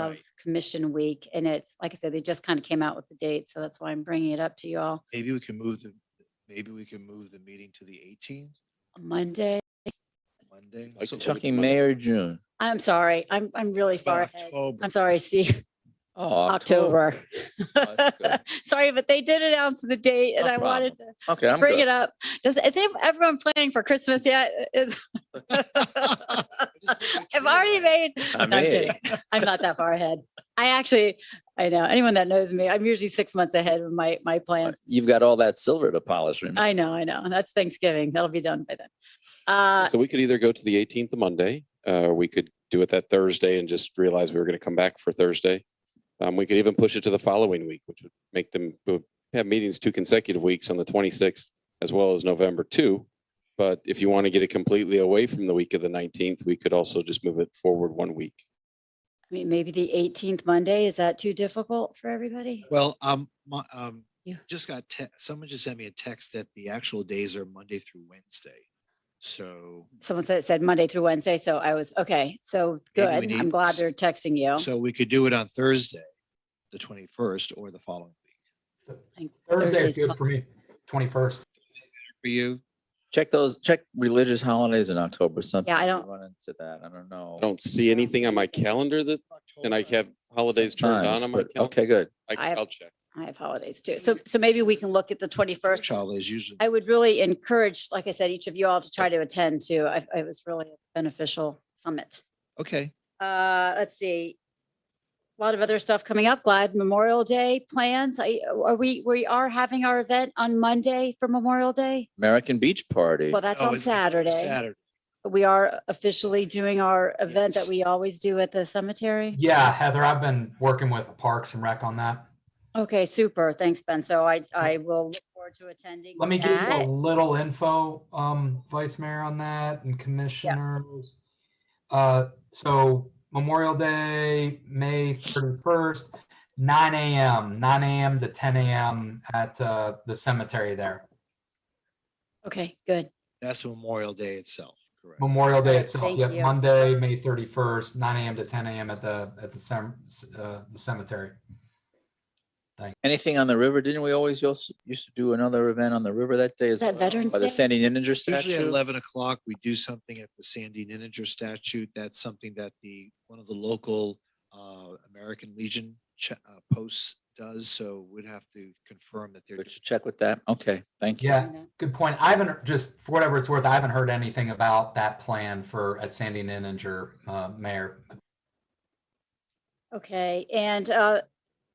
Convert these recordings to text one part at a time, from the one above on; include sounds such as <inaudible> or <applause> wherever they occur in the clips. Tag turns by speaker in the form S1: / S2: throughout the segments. S1: of
S2: Right.
S1: commission week. And it's, like I said, they just kind of came out with the date. So that's why I'm bringing it up to you all
S2: Maybe we can move the, maybe we can move the meeting to the eighteenth,
S1: on Monday.
S2: Monday.
S3: Like
S2: So-
S3: you're talking May or June?
S1: I'm sorry. I'm, I'm really far
S2: About
S1: ahead.
S2: October.
S1: I'm sorry, Steve.
S3: Oh,
S1: October.
S3: that's good.
S1: <laughs> Sorry, but they did announce the date and
S3: No
S1: I wanted to
S3: Okay, I'm
S1: bring it
S3: good.
S1: up. Does, is ev- everyone planning for Christmas yet? <laughs>
S3: <laughs>
S1: Is-
S2: Just
S1: <laughs>
S2: put the
S1: I've
S2: tree
S1: already
S2: away.
S1: made,
S3: I
S1: No, I'm
S3: may.
S1: kidding. I'm not that far ahead. I actually, I know, anyone that knows me, I'm usually six months ahead of my, my plans.
S3: Uh, You've got all that silver to polish, remember?
S1: I know, I know. That's Thanksgiving. That'll be done by then. Uh,
S4: So we could either go to the eighteenth of Monday, uh, we could do it that Thursday and just realize we were gonna come back for Thursday. Um, we could even push it to the following week, which would make them, we would have meetings two consecutive weeks on the twenty-sixth as well as November two. But if you want to get it completely away from the week of the nineteenth, we could also just move it forward one week.
S1: I mean, maybe the eighteenth Monday, is that too difficult for everybody?
S2: Well, um, my, um,
S1: Yeah.
S2: just got, te- someone just sent me a text that the actual days are Monday through Wednesday. So,
S1: Someone said, said Monday through Wednesday, so I was, okay, so
S2: Maybe we
S1: good. I'm
S2: need
S1: glad
S2: s-
S1: they're texting you.
S2: so we could do it on Thursday, the twenty-first or the following week.
S1: I think
S5: Thursday's
S1: Thursday's
S5: good for me, twenty-first.
S2: For you,
S3: Check those, check religious holidays in October, something.
S1: don't-
S3: Run into that, I don't know.
S4: I don't see anything on my calendar that, and I have holidays turned on
S3: Times,
S4: on my
S3: but-
S4: calendar.
S3: Okay, good.
S1: I-
S4: I- I'll check.
S1: I have holidays too. So, so maybe we can look at the twenty-first.
S2: Child is usually.
S1: I would really encourage, like I said, each of you all to try to attend to. I, it was really a beneficial summit.
S2: Okay,
S1: Uh, let's see. A lot of other stuff coming up. Glad Memorial Day plans. I, are we, we are having our event on Monday for Memorial Day?
S3: American Beach Party.
S1: Well, that's
S2: Oh,
S1: on
S2: it's- it's
S1: Saturday.
S2: Saturday.
S1: We are officially doing our event that
S2: Yes.
S1: we always do at the cemetery.
S5: Yeah, Heather, I've been working with Parks and Rec on that.
S1: Okay, super. Thanks, Ben. So I, I will look forward to attending.
S5: Let me give you a
S1: that.
S5: little info, um, Vice Mayor on that and commissioners. Uh, so Memorial Day, May thirty-first, nine AM, nine AM to ten AM at, uh, the cemetery there.
S1: Okay, good.
S2: That's Memorial Day itself, correct?
S5: Memorial Day itself,
S1: Thank
S5: yep,
S1: you.
S5: Monday, May thirty-first, nine AM to ten AM at the, at the cem- uh, the cemetery.
S3: Anything on the river? Didn't we always us- used to do another event on the river that day? as
S1: that
S3: well,
S1: Veterans
S3: By the
S1: Day?
S3: Sandy Ninja
S2: Usually at
S3: statue?
S2: eleven o'clock, we do something at the Sandy Ninninger statute. That's something that the, one of the local uh, American Legion ch- uh, posts does, so we'd have to confirm that they're.
S3: Would
S2: doing-
S3: you check with that? Okay, thank you.
S5: Yeah, Good point. I haven't, just for whatever it's worth, I haven't heard anything about that plan for at Sandy Ninninger, uh, mayor.
S1: Okay, and uh,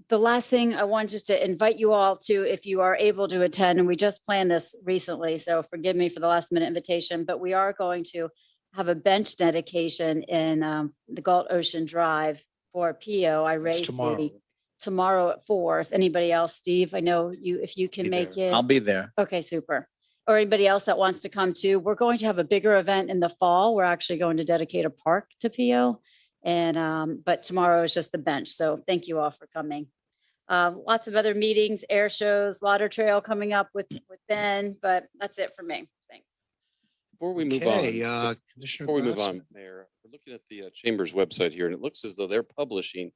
S1: the last thing I want just to invite you all to, if you are able to attend, and we just planned this recently, so forgive me for the last minute invitation, but we are going to have a bench dedication in um, the Gulf Ocean Drive for PO. I
S2: It's
S1: raised
S2: tomorrow.
S1: tomorrow at four. If anybody else, Steve, I know you, if you can
S2: Be
S1: make it.
S3: I'll be there.
S1: Okay, super. Or anybody else that wants to come too. We're going to have a bigger event in the fall. We're actually going to dedicate a park to PO. And, um, but tomorrow is just the bench. So thank you all for coming. Um, lots of other meetings, air shows, Lauder Trail coming up with, with Ben, but that's it for me. Thanks.
S4: Before we move on.
S2: Okay, uh, Commissioner.
S4: Before we move
S2: Glassman.
S4: on, Mayor, we're looking at the uh, Chamber's website here, and it looks as though they're publishing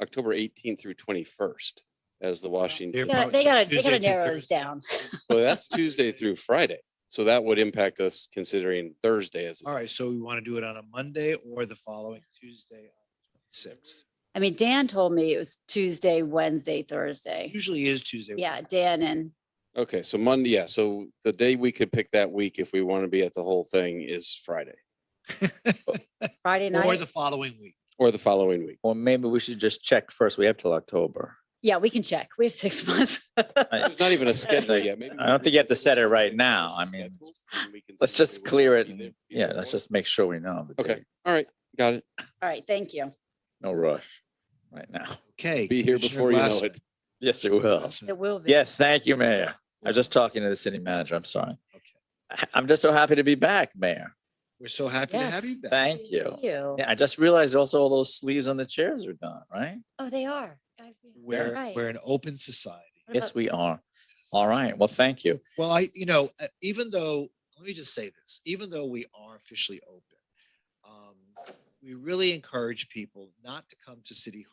S4: October 18th through 21st as the
S2: They're
S4: Washington.
S1: They gotta-
S2: publishing
S1: They gotta, they
S2: Tuesday
S1: gotta
S2: through
S1: narrow this
S2: Thursday.
S1: down.
S4: <laughs> Well, that's Tuesday through Friday, so that would impact us considering Thursday as.
S2: <laughs>
S4: a-
S2: All right, so we want to do it on a Monday or the following Tuesday, sixth.
S1: I mean, Dan told me it was Tuesday, Wednesday, Thursday.
S2: Usually is Tuesday.
S1: Yeah, Dan and,
S4: Okay, so Monday, yeah, so the day we could pick that week if we want to be at the whole thing is Friday
S1: Friday
S2: <laughs> Or
S1: night.
S2: the following week.
S4: or the following week.
S3: Or maybe we should just check first. We have till October.
S1: Yeah, we can check. We have six <laughs> months.
S3: I
S4: There's not even a schedule yet. Maybe
S3: <laughs> I don't think you have to set it right now. I mean, Let's just clear it. and- Yeah, let's just make sure we know. the
S4: Okay,
S3: date.
S4: all right, got it.
S1: All right, thank you.
S3: No rush right now.
S2: Okay.
S4: Be here
S2: Commissioner
S4: before you know
S2: Glassman.
S4: it.
S3: Yes, it will.
S2: Glassman.
S1: It will be.
S3: Yes, thank you, Mayor. I was just talking to the city manager. I'm sorry.
S2: Okay.
S3: I- I'm just so happy to be back, Mayor.
S2: We're so happy to have
S1: Yes.
S2: you back.
S3: Thank you.
S1: You.
S3: Yeah, I just realized also all those sleeves on the chairs are done, right?
S1: Oh, they are. I- you're
S2: We're,
S1: right.
S2: we're an open society.
S1: What
S3: Yes,
S1: about-
S3: we are. All right. Well, thank you.
S2: Well, I, you know, uh, even though, let me just say this, even though we are officially open, um, we really encourage people not to come to City Hall.